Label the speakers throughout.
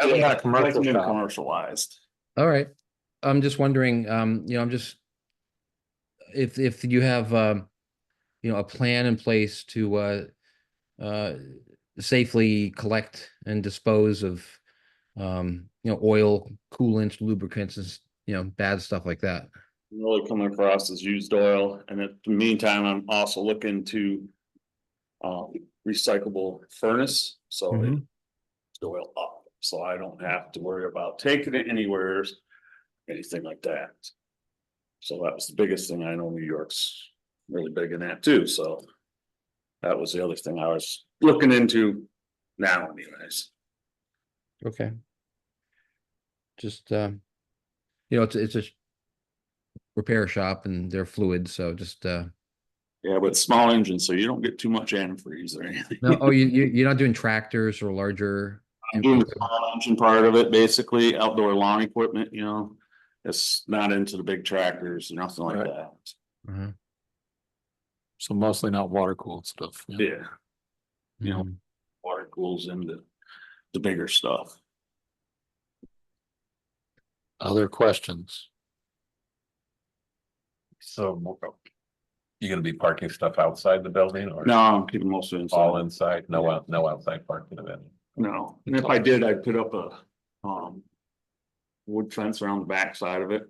Speaker 1: I like
Speaker 2: Yeah,
Speaker 1: that. I like
Speaker 2: commercial
Speaker 1: being
Speaker 2: style.
Speaker 1: Commercialized.
Speaker 3: All right. I'm just wondering, um, you know, I'm just if if you have um, you know, a plan in place to uh uh safely collect and dispose of um, you know, oil, coolants, lubricants, and s- you know, bad stuff like that.
Speaker 1: Really coming across as used oil, and at the meantime, I'm also looking to. Um, recyclable furnace, so. it-
Speaker 2: Mhm.
Speaker 1: the Oil up, so I don't have to worry about taking it anywhere, anything like that. So that was the biggest thing, I know New York's really big in that too, so. That was the other thing I was looking into now anyways.
Speaker 3: Okay. Just um, you know, it's it's a sh- repair shop and they're fluid, so just uh
Speaker 1: Yeah, but small engine, so you don't get too much antifreeze or anything.
Speaker 3: no, oh, you you you're not doing tractors or larger.
Speaker 1: I'm doing the small engine part of it, basically outdoor lawn equipment, you know, it's not into the big tractors, nothing like
Speaker 2: Right.
Speaker 1: that.
Speaker 3: Uh-huh.
Speaker 2: So mostly not water cooled stuff. yeah.
Speaker 1: Yeah, You know.
Speaker 3: Mhm.
Speaker 1: water cools into the bigger stuff.
Speaker 2: Other questions?
Speaker 4: So you gonna be parking stuff outside the building or?
Speaker 1: No, I'm keeping most of it
Speaker 4: All
Speaker 1: inside.
Speaker 4: inside, no, out- no outside parking of any.
Speaker 1: No, and if I did, I'd put up a, um, wood fence around the backside of it.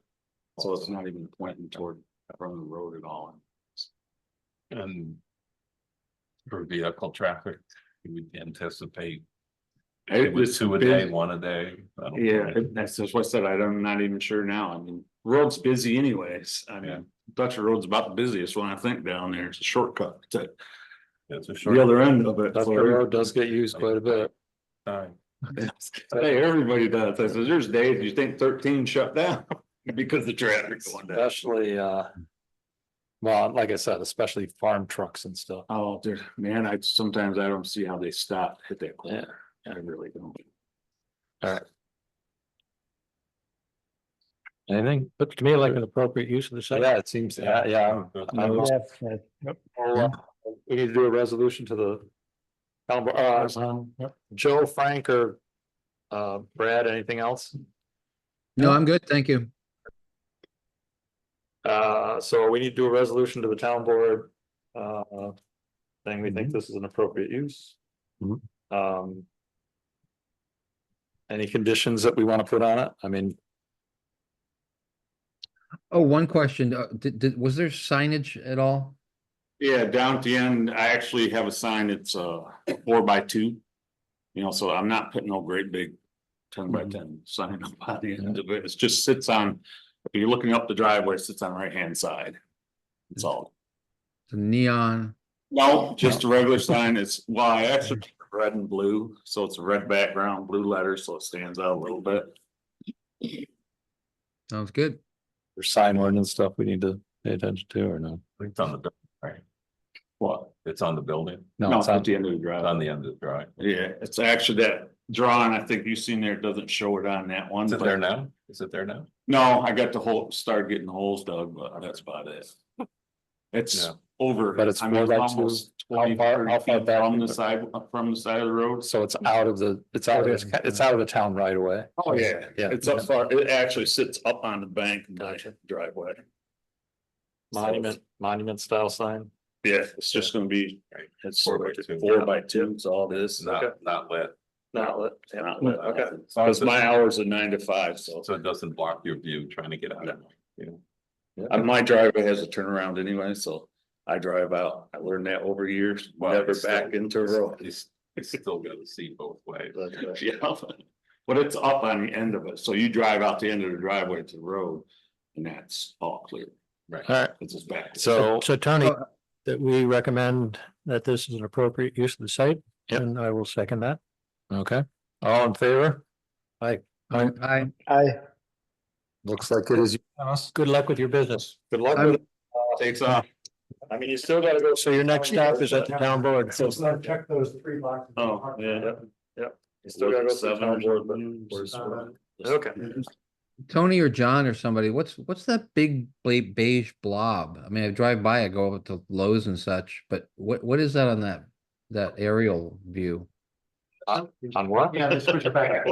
Speaker 1: So it's not even pointing toward from the road at all.
Speaker 4: And. For vehicle traffic, you would anticipate
Speaker 1: It
Speaker 4: two
Speaker 1: was
Speaker 4: two a day, one a day. I don't
Speaker 1: Yeah,
Speaker 4: know.
Speaker 1: it- that's just what I said. I don't- I'm not even sure now. I mean, road's busy anyways. I
Speaker 4: Yeah.
Speaker 1: mean, Dutcher Road's about the busiest one I think down there. It's a shortcut to
Speaker 4: It's a
Speaker 1: the
Speaker 4: short
Speaker 1: other end of it.
Speaker 2: Dutcher
Speaker 1: So
Speaker 2: Road does get used quite a bit.
Speaker 4: time.
Speaker 1: Hey, everybody does. I says, there's days you think thirteen shut down because the traffic's going down.
Speaker 2: Especially, uh. Well, like I said, especially farm trucks and stuff.
Speaker 1: Oh, dude, man, I sometimes I don't see how they stop, hit that
Speaker 2: Yeah.
Speaker 1: corner. I really don't.
Speaker 2: Anything, but to me, like an appropriate use of the site. Yeah, it seems, yeah, yeah. I'm- I'm- Well, uh, We need to do a resolution to the. town bo- uh,
Speaker 1: Um,
Speaker 2: Joe, Frank, or uh, Brad, anything else?
Speaker 3: No, I'm good. Thank you.
Speaker 2: Uh, so we need to do a resolution to the town board. Uh, saying we think this is an appropriate use.
Speaker 4: Mhm.
Speaker 2: Um. Any conditions that we want to put on it? I mean,
Speaker 3: Oh, one question. Uh, did, did, was there signage at all?
Speaker 1: Yeah, down at the end, I actually have a sign, it's uh four by two. You know, so I'm not putting no great big ten by
Speaker 2: Mhm.
Speaker 1: ten sign up by the end of it, it just sits on, if you're looking up the driveway, it sits on the right hand side. That's all.
Speaker 3: The neon?
Speaker 1: No, just a regular sign, it's, well, I actually, did red and blue, so it's a red background, blue letters, so it stands out a little bit.
Speaker 3: Sounds good.
Speaker 2: there's sign ordinance stuff we need to pay attention to or no?
Speaker 4: It's on the, buil- right,
Speaker 1: What?
Speaker 4: it's on the building,
Speaker 1: No,
Speaker 2: No,
Speaker 1: it's
Speaker 2: it's
Speaker 1: at
Speaker 2: on,
Speaker 1: the end of the
Speaker 4: It's
Speaker 1: driveway.
Speaker 4: on the end of the drive.
Speaker 1: Yeah, it's actually that drawing, I think you've seen there, it doesn't show it on that one.
Speaker 4: Is it
Speaker 1: but-
Speaker 4: there now? Is it there now?
Speaker 1: No, I got the whole, started getting holes dug, but that's about it. It's
Speaker 4: Yeah.
Speaker 1: over.
Speaker 2: But it's
Speaker 1: I mean,
Speaker 2: more like
Speaker 1: almost
Speaker 2: to- how
Speaker 1: 20,
Speaker 2: far-
Speaker 1: 30
Speaker 2: how far
Speaker 1: feet
Speaker 2: back
Speaker 1: From the
Speaker 2: is it?
Speaker 1: side, from the side of the road.
Speaker 2: so it's out of the, it's out of, this- it's out of the town right away.
Speaker 1: Oh, yeah,
Speaker 2: Yeah.
Speaker 1: it's up far, it actually sits up on the bank in my
Speaker 2: Gotcha.
Speaker 1: driveway.
Speaker 2: Monument, monument style sign.
Speaker 1: Yeah, it's just gonna be,
Speaker 4: Right.
Speaker 1: it's
Speaker 4: Four by two.
Speaker 1: four by two, it's all
Speaker 4: It's
Speaker 1: this.
Speaker 4: Not, not lit.
Speaker 2: Not lit.
Speaker 1: Not-
Speaker 2: Okay.
Speaker 1: Cause my hours are nine to five, so
Speaker 4: So it doesn't block your view trying to get out of, you know?
Speaker 1: Uh, my driveway has a turnaround anyway, so I drive out. I learned that over years,
Speaker 4: Well,
Speaker 1: never
Speaker 4: it's still-
Speaker 1: back into a road.
Speaker 4: It's, it's still gonna see both ways.
Speaker 1: Yeah, but it's up on the end of it, so you drive out the end of the driveway to the road, and that's all clear,
Speaker 4: Right.
Speaker 5: All right,
Speaker 1: it's just back.
Speaker 2: So.
Speaker 5: so Tony,
Speaker 3: Oh.
Speaker 5: that we recommend that this is an appropriate use of the site,
Speaker 2: Yep.
Speaker 5: and I will second that.
Speaker 2: Okay, all in favor?
Speaker 3: I, I,
Speaker 5: Aye.
Speaker 2: Looks like it is.
Speaker 5: Good luck with your business.
Speaker 2: Good luck
Speaker 3: I'm-
Speaker 2: with it.
Speaker 1: Takes off.
Speaker 2: I mean, you still gotta go.
Speaker 5: So your next stop is at the town board.
Speaker 2: So it's not-
Speaker 5: check those three boxes.
Speaker 1: Oh, yeah.
Speaker 2: You still gotta go. through
Speaker 1: Seven
Speaker 2: town
Speaker 1: or
Speaker 2: board, but-
Speaker 1: Where's-
Speaker 2: Okay.
Speaker 3: Tony or John or somebody, what's, what's that big bla- beige blob? I mean, I drive by, I go up to Lowe's and such, but what, what is that on that, that aerial view?
Speaker 2: On what?
Speaker 5: Yeah, they switch it back.